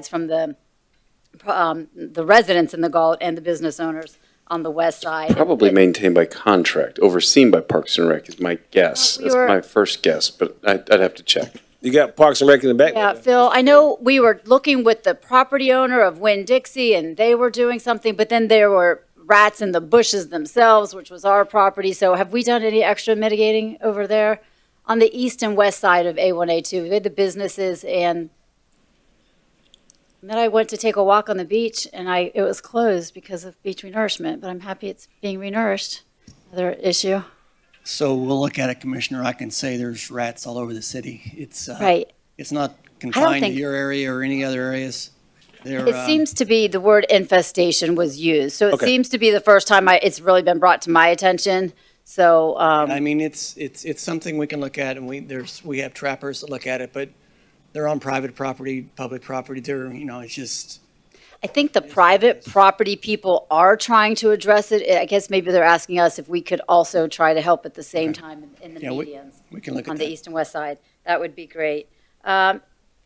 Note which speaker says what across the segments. Speaker 1: It's from the, um, the residents in the Galt and the business owners on the west side.
Speaker 2: Probably maintained by contract, overseen by Parks and Rec is my guess.
Speaker 1: We
Speaker 2: That's
Speaker 1: were-
Speaker 2: my first guess, but I, I'd have to check.
Speaker 3: You got Parks and Rec in the back?
Speaker 1: Yeah, Phil, I know we were looking with the property owner of Winn-Dixie, and they were doing something, but then there were rats in the bushes themselves, which was our property, so have we done any extra mitigating over there? On the east and west side of A1, A2, we had the businesses, and and then I went to take a walk on the beach, and I, it was closed because of beach renourishment, but I'm happy it's being renourished, another issue.
Speaker 4: So we'll look at it, Commissioner. I can say there's rats all over the city. It's, uh,
Speaker 1: Right,
Speaker 4: it's not confined to
Speaker 1: think-
Speaker 4: your area or any other areas. They're,
Speaker 1: It
Speaker 4: um,
Speaker 1: seems to be the word infestation was used, so it
Speaker 3: Okay.
Speaker 1: seems to be the first time I, it's really been brought to my attention. So, um,
Speaker 4: I mean, it's, it's, it's something we can look at and we, there's, we have trappers that look at it, but they're on private property, public property. They're, you know, it's just,
Speaker 1: I think the private property people are trying to address it. I guess maybe they're asking us if we could also try to help at the same time in- in the
Speaker 4: Yeah, we-
Speaker 1: medians
Speaker 4: we can look
Speaker 1: on
Speaker 4: at
Speaker 1: the
Speaker 4: that.
Speaker 1: east and west side. That would be great. Um,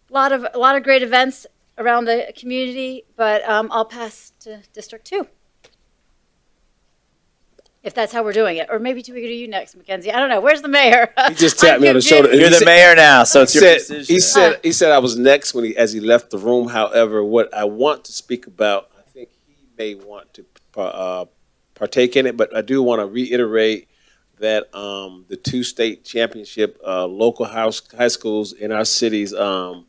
Speaker 1: lot of, a lot of great events around the community, but, um, I'll pass to District Two. If that's how we're doing it, or maybe do we go to you next, Mackenzie? I don't know. Where's the mayor? He
Speaker 3: just tapped me on the shoulder.
Speaker 5: You're the mayor now, so it's your
Speaker 3: said,
Speaker 5: decision.
Speaker 3: he said he said I was next when he as he left the room. However, what I want to speak about, I think he may want to uh, partake in it, but I do want to reiterate that um, the two state championship uh, local house high schools in our cities um,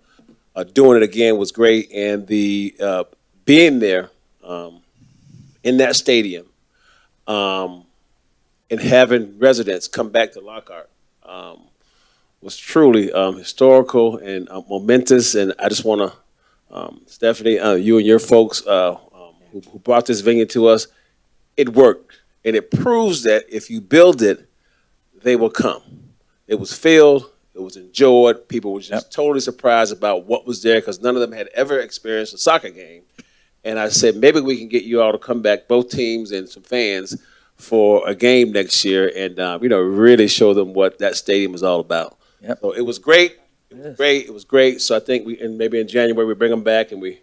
Speaker 3: uh, doing it again was great, and the uh, being there um, in that stadium um, and having residents come back to Lockhart. Um, was truly um, historical and uh, momentous. And I just want to, um, Stephanie, uh, you and your folks uh, um, who, who brought this venue to us, it worked. And it proves that if you build it, they will come. It was filled, it was enjoyed. People were just totally surprised about what was there because none of them had ever experienced a soccer game. And I said, maybe we can get you all to come back, both teams and some fans, for a game next year and, uh, you know, really show them what that stadium is all about.
Speaker 5: Yep.
Speaker 3: So it was great. It was great. It was great. So I think we, and maybe in January, we bring them back and we,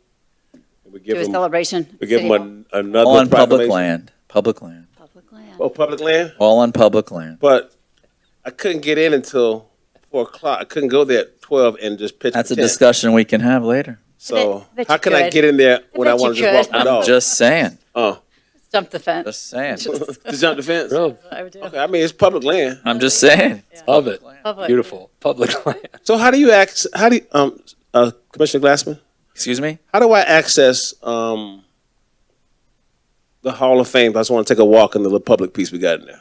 Speaker 3: we
Speaker 1: Do
Speaker 3: give
Speaker 1: a
Speaker 3: them,
Speaker 1: celebration.
Speaker 3: we give
Speaker 1: City Hall,
Speaker 3: them an, another
Speaker 5: All on public
Speaker 3: proclamation.
Speaker 5: land, public land,
Speaker 1: Public land.
Speaker 3: Oh, public land?
Speaker 5: all on public land.
Speaker 3: But I couldn't get in until four o'clock. I couldn't go there at twelve and just pitch.
Speaker 5: That's
Speaker 3: for
Speaker 5: a
Speaker 3: 10.
Speaker 5: discussion we can have later.
Speaker 3: So
Speaker 1: Bet- bet
Speaker 3: how
Speaker 1: you
Speaker 3: can I
Speaker 1: could.
Speaker 3: get in there when I
Speaker 1: bet you
Speaker 3: want to just
Speaker 1: could.
Speaker 3: walk my
Speaker 5: I'm
Speaker 3: dog?
Speaker 5: just saying,
Speaker 3: uh,
Speaker 1: Stump the fence.
Speaker 5: just saying.
Speaker 3: to jump the fence.
Speaker 1: I would do.
Speaker 3: Okay, I mean it's public land.
Speaker 5: I'm just saying.
Speaker 6: Love it.
Speaker 1: Public.
Speaker 6: Beautiful. Public land.
Speaker 3: So how do you access? How do you, um uh, Commissioner Glassman?
Speaker 5: Excuse me?
Speaker 3: How do I access um the Hall of Fame? If I just want to take a walk in the little public piece we got in there.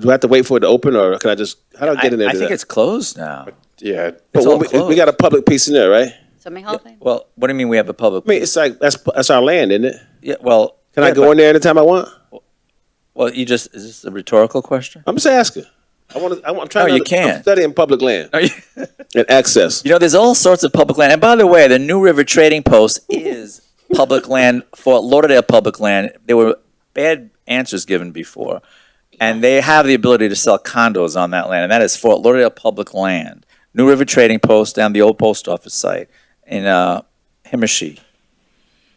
Speaker 3: Do I have to wait for it to open, or can I just? How do I
Speaker 5: I
Speaker 3: get in there?
Speaker 5: I
Speaker 3: to
Speaker 5: think
Speaker 3: that?
Speaker 5: it's closed now.
Speaker 2: Yeah,
Speaker 3: But
Speaker 5: it's
Speaker 3: when
Speaker 5: all
Speaker 3: we, we
Speaker 5: closed.
Speaker 3: got a public piece in there, right?
Speaker 1: Something Hall of Fame?
Speaker 5: Well, what do you mean we have a public?
Speaker 3: I mean, it's like that's that's our land, isn't it?
Speaker 5: Yeah, well.
Speaker 3: Can I
Speaker 5: yeah,
Speaker 3: go
Speaker 5: but-
Speaker 3: in there anytime I want?
Speaker 5: Well, you just, is this a rhetorical question?
Speaker 3: I'm just asking. I want to. I'm trying.
Speaker 5: No,
Speaker 3: to
Speaker 5: you can't.
Speaker 3: I'm studying public land
Speaker 5: Are you-
Speaker 3: and access.
Speaker 5: You know, there's all sorts of public land. And by the way, the New River Trading Post is public land, Fort Lauderdale public land. There were bad answers given before. And they have the ability to sell condos on that land, and that is Fort Lauderdale public land. New River Trading Post down the old post office site in uh, Himmershey.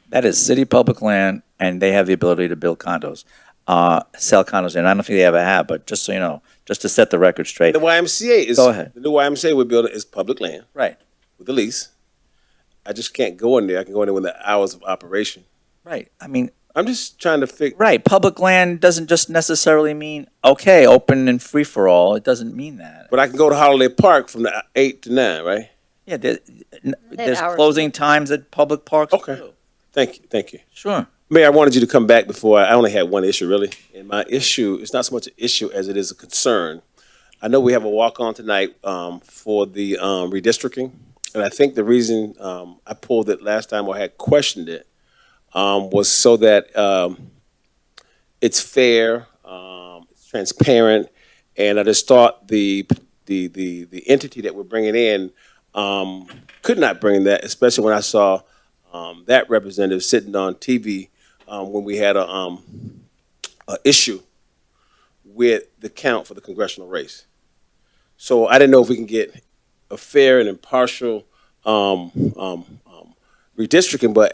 Speaker 5: That is city public land, and they have the ability to build condos, uh, sell condos. And I don't think they ever have, but just so you know, just to set the record straight.
Speaker 3: The YMCA is
Speaker 5: Go ahead.
Speaker 3: the new YMCA we're building is public land
Speaker 5: Right,
Speaker 3: with the lease. I just can't go in there. I can go in there when the hours of operation.
Speaker 5: right. I mean,
Speaker 3: I'm just trying to figure.
Speaker 5: Right. Public land doesn't just necessarily mean, okay, open and free for all. It doesn't mean that.
Speaker 3: But I can go to Holiday Park from the eight to nine, right?
Speaker 5: Yeah, there, n- there's
Speaker 1: hours.
Speaker 5: closing times at public parks.
Speaker 3: Okay.
Speaker 5: too.
Speaker 3: Thank you. Thank you.
Speaker 5: Sure.
Speaker 3: Mayor, I wanted you to come back before. I only had one issue, really. And my issue, it's not so much an issue as it is a concern. I know we have a walk-on tonight um, for the um, redistricting. And I think the reason um, I pulled it last time or had questioned it um, was so that um, it's fair, um, it's transparent. And I just thought the, the, the, the entity that we're bringing in um, could not bring that, especially when I saw um, that representative sitting on TV um, when we had a, um, a issue with the count for the congressional race. So I didn't know if we can get a fair and impartial um, um, um, redistricting, but